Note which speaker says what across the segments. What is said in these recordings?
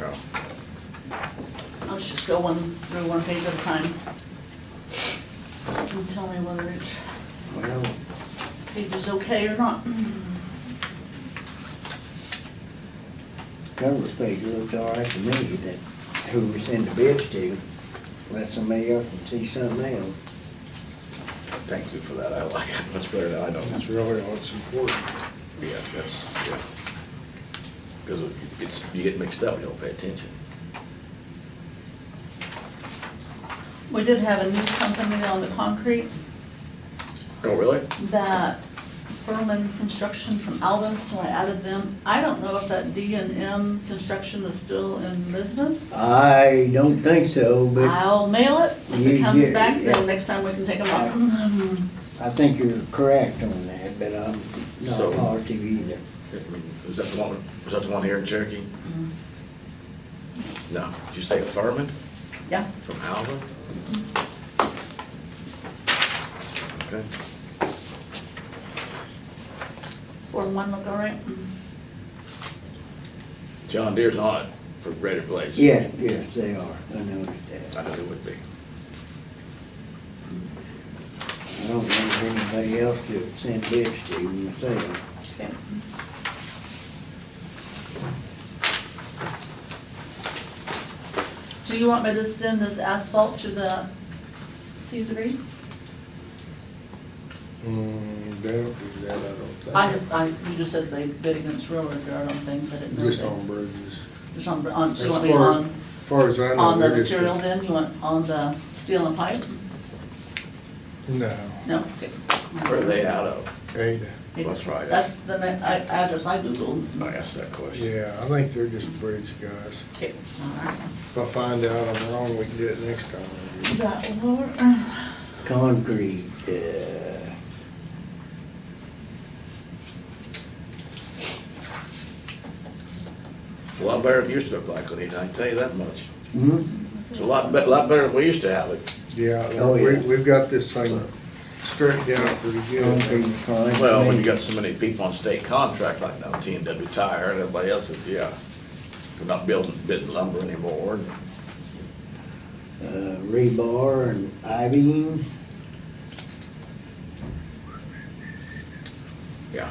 Speaker 1: Oh,
Speaker 2: Let's just go one, through one page at a time. And tell me whether each
Speaker 3: Well,
Speaker 2: page is okay or not.
Speaker 3: cover page looks all right to me, that who we send the bids to, let somebody else can see something else.
Speaker 1: Thank you for that, I like it much better than I don't.
Speaker 4: That's really what's important.
Speaker 1: Yeah, that's, yeah. Because it's, you get mixed up, you don't pay attention.
Speaker 2: We did have a new company on the concrete
Speaker 1: Oh, really?
Speaker 2: that Furman Construction from Alvin, so I added them. I don't know if that D and M Construction is still in business.
Speaker 3: I don't think so, but
Speaker 2: I'll mail it. If it
Speaker 3: You-
Speaker 2: comes
Speaker 3: you-
Speaker 2: back,
Speaker 3: yeah.
Speaker 2: then next time we can take them out.
Speaker 3: I think you're correct on that, but I'm
Speaker 1: So-
Speaker 3: not positive either.
Speaker 1: I mean, Was that the one, was that the one here in Cherokee? No, did you say Furman
Speaker 2: Yeah,
Speaker 1: from Alva? Okay,
Speaker 2: four and one look all right.
Speaker 1: John Deere's on it for Greater Place.
Speaker 3: Yes, yes, they are, I noticed
Speaker 1: I
Speaker 3: that.
Speaker 1: know it would be.
Speaker 3: I don't know of anybody else to send bids to myself.
Speaker 2: Okay. Do you want me to send this asphalt to the C three?
Speaker 4: Mm, they don't do that, I don't
Speaker 2: I,
Speaker 4: think.
Speaker 2: I, you just said they bid against railroad yard on things, I didn't know.
Speaker 4: Just
Speaker 2: that-
Speaker 4: on bridges.
Speaker 2: Just on, on, so
Speaker 4: As
Speaker 2: you
Speaker 4: far
Speaker 2: want me on,
Speaker 4: As far as I know,
Speaker 2: on the
Speaker 4: they're just.
Speaker 2: material then, you want on the steel and pipe?
Speaker 4: No,
Speaker 2: No, okay.
Speaker 1: Where are they out of?
Speaker 4: Ada,
Speaker 1: That's right.
Speaker 2: That's the ne- I- address I Googled.
Speaker 1: I asked that question.
Speaker 4: yeah, I think they're just bridge guys.
Speaker 2: Okay, all right.
Speaker 4: If I find out I'm wrong, we can do it next time.
Speaker 2: You got lower,
Speaker 3: Concrete, uh,
Speaker 1: It's a lot better than it used to look like, Lenita, I can tell you that much.
Speaker 3: hmm?
Speaker 1: It's a lot, be- lot better than we used to have it.
Speaker 4: Yeah,
Speaker 3: Oh,
Speaker 4: we,
Speaker 3: yeah.
Speaker 4: we've got this thing straightened out pretty
Speaker 3: Concrete
Speaker 4: good.
Speaker 3: is fine. to
Speaker 1: Well, when
Speaker 3: me.
Speaker 1: you got so many people on state contract like now, T and W Tire and everybody else is, yeah. We're not building, bidding lumber anymore. and
Speaker 3: Uh, rebar and I-beam.
Speaker 1: Yeah,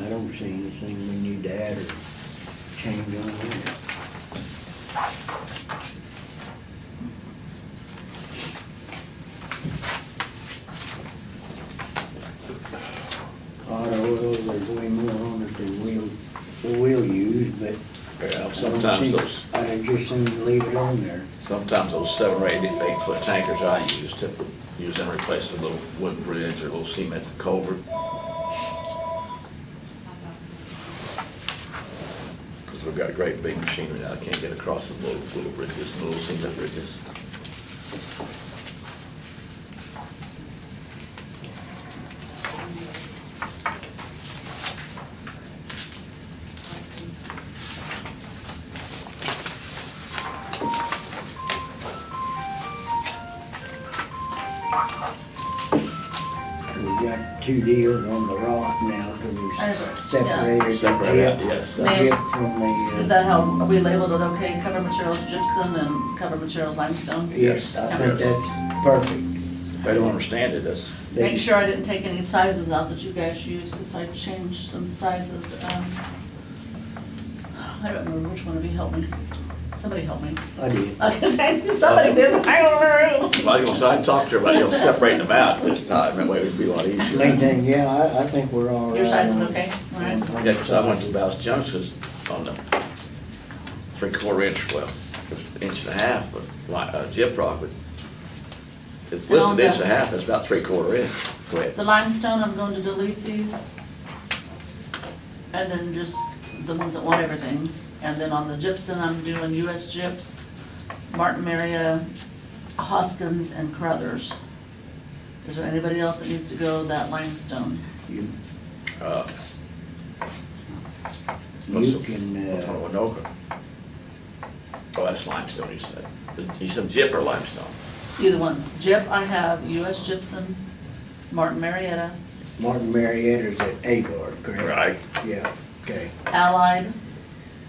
Speaker 3: I don't see anything we need to add or change on there. Hot oil, there's way more on it than we'll, we'll use, but.
Speaker 1: yeah,
Speaker 3: I don't
Speaker 1: sometimes
Speaker 3: think-
Speaker 1: those,
Speaker 3: I just seem to leave it on there.
Speaker 1: sometimes those seven or eight, eight foot tankers I use to use them to replace a little wooden bridge or a little cement culvert. Cause we've got a great big machinery now, I can't get across the little, little bridges, and little cement bridges.
Speaker 3: We got two deals on the rock now, cause we
Speaker 2: I- yeah.
Speaker 3: separated the
Speaker 1: Separate out,
Speaker 3: dip.
Speaker 1: yes.
Speaker 3: the
Speaker 2: Now-
Speaker 3: dip from the. uh,
Speaker 2: is that how, are we labeled it okay, cover materials gypsum and cover materials limestone?
Speaker 3: Yes, I think
Speaker 1: Yes.
Speaker 3: that's perfect.
Speaker 1: If they don't understand it, that's,
Speaker 3: They-
Speaker 2: Make sure I didn't take any sizes out that you guys used, because I changed some sizes, um, I don't remember which one of you helped me, somebody helped me,
Speaker 3: I did.
Speaker 2: I guess I knew somebody did, but I don't remember who.
Speaker 1: Well, I was gonna say, I talked to everybody else, separating them out this time, that way it'd be a lot easier.
Speaker 3: Main thing, yeah, I, I think we're all right.
Speaker 2: Your size is
Speaker 3: on-
Speaker 2: okay, all right.
Speaker 3: on- on
Speaker 1: Yeah, 'cause I went to
Speaker 3: size.
Speaker 1: Ballast Jones, 'cause on the three quarter inch, well, it was inch and a half, but like, uh, jib rock, but it's
Speaker 2: And on
Speaker 1: listed inch and
Speaker 2: the-
Speaker 1: a half, it's about three quarter inch. Go ahead.
Speaker 2: The limestone, I'm going to delete these. And then just the ones that want everything. And then on the gypsum, I'm doing US Gyps, Martin Marietta, Hoskins, and Crothers. Is there anybody else that needs to go that limestone?
Speaker 3: You
Speaker 1: Uh, what's
Speaker 3: you
Speaker 1: the-
Speaker 3: can,
Speaker 1: What's on
Speaker 3: uh,
Speaker 1: Winoka? Oh, that's limestone, he said. He said jib or limestone.
Speaker 2: Either one. Gyp, I have US Gypsum, Martin Marietta,
Speaker 3: Martin Marietta's at Agard, correct?
Speaker 1: Right.
Speaker 3: Yeah, okay.
Speaker 2: Allied,